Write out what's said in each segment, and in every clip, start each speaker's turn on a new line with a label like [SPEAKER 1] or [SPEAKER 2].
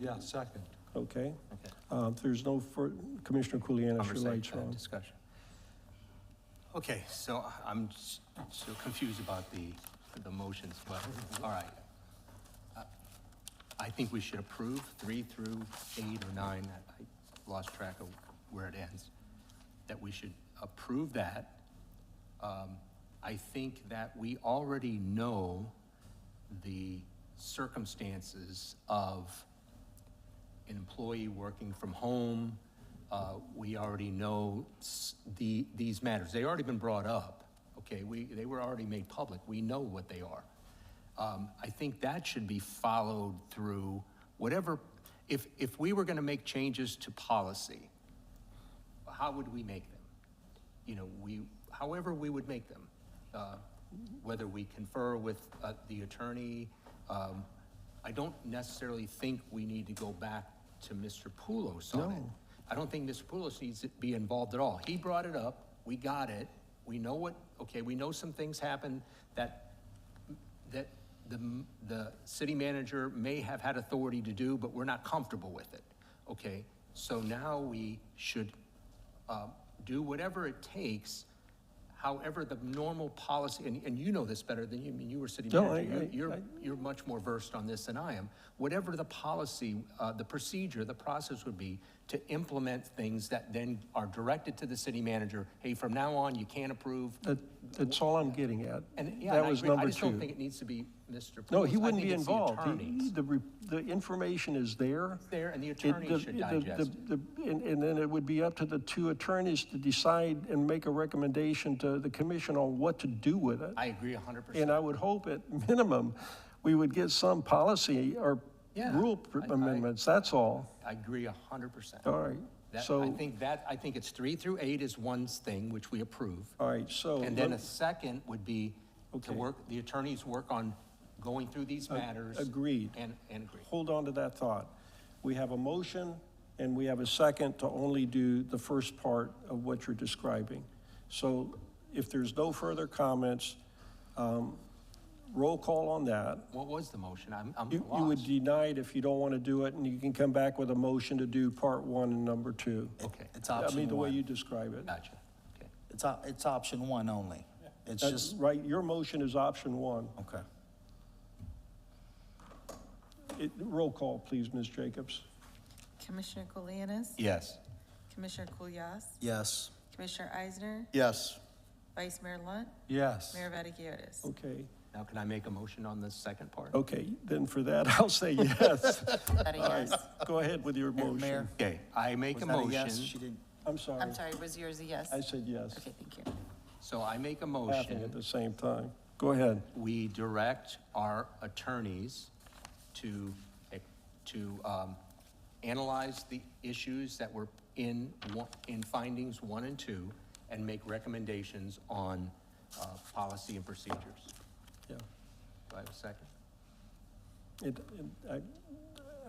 [SPEAKER 1] Yeah, second.
[SPEAKER 2] Okay,
[SPEAKER 3] Okay.
[SPEAKER 2] Uh, if there's no, fur- Commissioner Kulianis, your light's
[SPEAKER 3] Conversation, uh,
[SPEAKER 2] on.
[SPEAKER 3] discussion. Okay, so I'm s- so confused about the, the motions, but, all right. Uh, I think we should approve three through eight or nine, I I lost track of where it ends, that we should approve that. Um, I think that we already know the circumstances of an employee working from home. uh, We already know s- the, these matters. They already been brought up, okay? We, they were already made public. We know what they are. Um, I think that should be followed through whatever, if, if we were going to make changes to policy, how would we make them? You know, we, however we would make them, uh, whether we confer with uh, the attorney. um, I don't necessarily think we need to go back to Mr. Poulos on it. I don't think Mr. Poulos needs to be involved at all. He brought it up, we got it, we know what, okay, we know some things happened that that the, the city manager may have had authority to do, but we're not comfortable with it. Okay, so now we should uh, do whatever it takes, however the normal policy, and, and you know this better than you, I mean, you were city
[SPEAKER 2] No,
[SPEAKER 3] manager.
[SPEAKER 2] I-
[SPEAKER 3] You-
[SPEAKER 2] I-
[SPEAKER 3] You're,
[SPEAKER 2] I-
[SPEAKER 3] you're much more versed on this than I am. Whatever the policy, uh, the procedure, the process would be to implement things that then are directed to the city manager, hey, from now on, you can't approve.
[SPEAKER 2] That- That's all I'm getting at.
[SPEAKER 3] And, yeah, and
[SPEAKER 2] That
[SPEAKER 3] I
[SPEAKER 2] was
[SPEAKER 3] agree. I
[SPEAKER 2] number
[SPEAKER 3] just don't
[SPEAKER 2] two.
[SPEAKER 3] think it needs to be Mr.
[SPEAKER 2] No,
[SPEAKER 3] Poulos.
[SPEAKER 2] he
[SPEAKER 3] I
[SPEAKER 2] wouldn't
[SPEAKER 3] think
[SPEAKER 2] be
[SPEAKER 3] it's the
[SPEAKER 2] involved. He-
[SPEAKER 3] attorneys.
[SPEAKER 2] The, re- the information is there.
[SPEAKER 3] There, and the
[SPEAKER 2] It-
[SPEAKER 3] attorney
[SPEAKER 2] the-
[SPEAKER 3] should
[SPEAKER 2] the-
[SPEAKER 3] digest it.
[SPEAKER 2] the- the- And, and then it would be up to the two attorneys to decide and make a recommendation to the commission on what to do with it.
[SPEAKER 3] I agree hundred percent.
[SPEAKER 2] And I would hope at minimum, we would get some policy or
[SPEAKER 3] Yeah,
[SPEAKER 2] rule
[SPEAKER 3] I- I-
[SPEAKER 2] amendments, that's all.
[SPEAKER 3] I agree hundred percent.
[SPEAKER 2] All right,
[SPEAKER 3] That, I
[SPEAKER 2] so,
[SPEAKER 3] think that, I think it's three through eight is one thing which we approve.
[SPEAKER 2] all right, so.
[SPEAKER 3] And then
[SPEAKER 2] Oh, let-
[SPEAKER 3] a second would be to
[SPEAKER 2] Okay.
[SPEAKER 3] work, the attorneys work on going through these matters.
[SPEAKER 2] agreed.
[SPEAKER 3] And, and agree.
[SPEAKER 2] hold on to that thought. We have a motion and we have a second to only do the first part of what you're describing. So if there's no further comments, um, roll call on that.
[SPEAKER 3] What was the motion? I'm, I'm
[SPEAKER 2] You, you would
[SPEAKER 3] lost.
[SPEAKER 2] deny it if you don't want to do it and you can come back with a motion to do part one and number two.
[SPEAKER 3] Okay,
[SPEAKER 4] It's
[SPEAKER 2] I mean,
[SPEAKER 4] option
[SPEAKER 2] the way you
[SPEAKER 4] one. Uh,
[SPEAKER 2] describe it.
[SPEAKER 3] gotcha. Okay.
[SPEAKER 4] It's, op- it's option one only. It's
[SPEAKER 2] That's
[SPEAKER 4] just,
[SPEAKER 2] Uh, right, your motion is option one.
[SPEAKER 4] okay.
[SPEAKER 2] It, roll call, please, Ms. Jacobs.
[SPEAKER 5] Commissioner Kulianis?
[SPEAKER 3] Yes.
[SPEAKER 5] Commissioner Kulyas?
[SPEAKER 4] Yes.
[SPEAKER 5] Commissioner Eisner?
[SPEAKER 4] Yes.
[SPEAKER 5] Vice Mayor Lunt?
[SPEAKER 1] Yes.
[SPEAKER 5] Mayor Vaticius?
[SPEAKER 2] Okay,
[SPEAKER 3] Now can I make a motion on the second part?
[SPEAKER 2] okay, then for that, I'll say yes.
[SPEAKER 5] Vaticius.
[SPEAKER 2] Go ahead with your
[SPEAKER 4] Mayor-
[SPEAKER 2] motion.
[SPEAKER 4] Mayor?
[SPEAKER 3] Okay, I make
[SPEAKER 4] Was
[SPEAKER 3] a
[SPEAKER 4] that yes? She
[SPEAKER 3] motion,
[SPEAKER 4] didn't,
[SPEAKER 2] I'm sorry.
[SPEAKER 5] I'm sorry, was yours a yes?
[SPEAKER 2] I said yes,
[SPEAKER 5] Okay, thank you.
[SPEAKER 3] so I make a
[SPEAKER 2] laughing at
[SPEAKER 3] motion.
[SPEAKER 2] the same time. Go ahead.
[SPEAKER 3] we direct our attorneys to, to um, analyze the issues that were in, one- in findings one and two, and make recommendations on uh, policy and procedures.
[SPEAKER 2] Yeah.
[SPEAKER 3] Do I have a second?
[SPEAKER 2] It, it-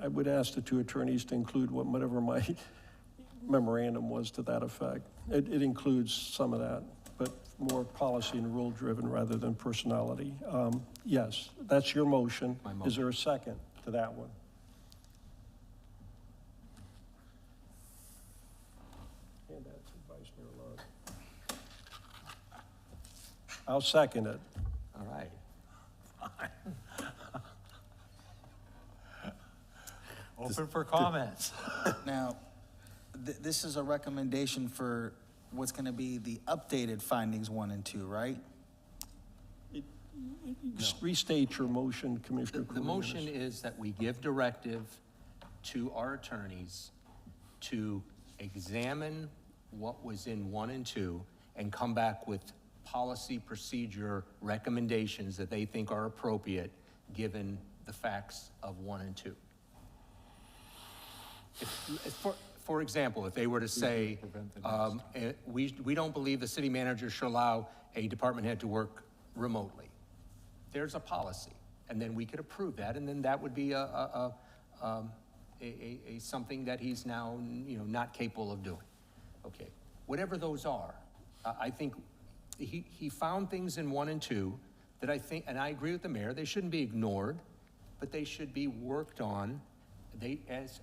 [SPEAKER 2] I, I would ask the two attorneys to include what- whatever my memorandum was to that effect. It, it includes some of that, but more policy and rule-driven rather than personality. Um, Yes, that's your motion.
[SPEAKER 3] My
[SPEAKER 2] Is there a second to that one? Hand that to Vice Mayor Lund. I'll second it.
[SPEAKER 3] All right.
[SPEAKER 1] Open for comments.
[SPEAKER 4] now, th- this is a recommendation for what's gonna be the updated findings one and two, right?
[SPEAKER 2] Restate your motion,
[SPEAKER 3] The
[SPEAKER 2] Commissioner
[SPEAKER 3] the
[SPEAKER 2] Kulianis.
[SPEAKER 3] motion is that we give directive to our attorneys to examine what was in one and two and come back with policy procedure recommendations that they think are appropriate, given the facts of one and two. If- For, for example, if they were to say, um, eh, we, we don't believe the city manager should allow a department head to work remotely, there's a policy, and then we could approve that, and then that would be a, a, a, um, a, a, a something that he's now, you know, not capable of doing. Okay, whatever those are, I, I think he, he found things in one and two that I think, and I agree with the mayor, they shouldn't be ignored, but they should be worked on they, as,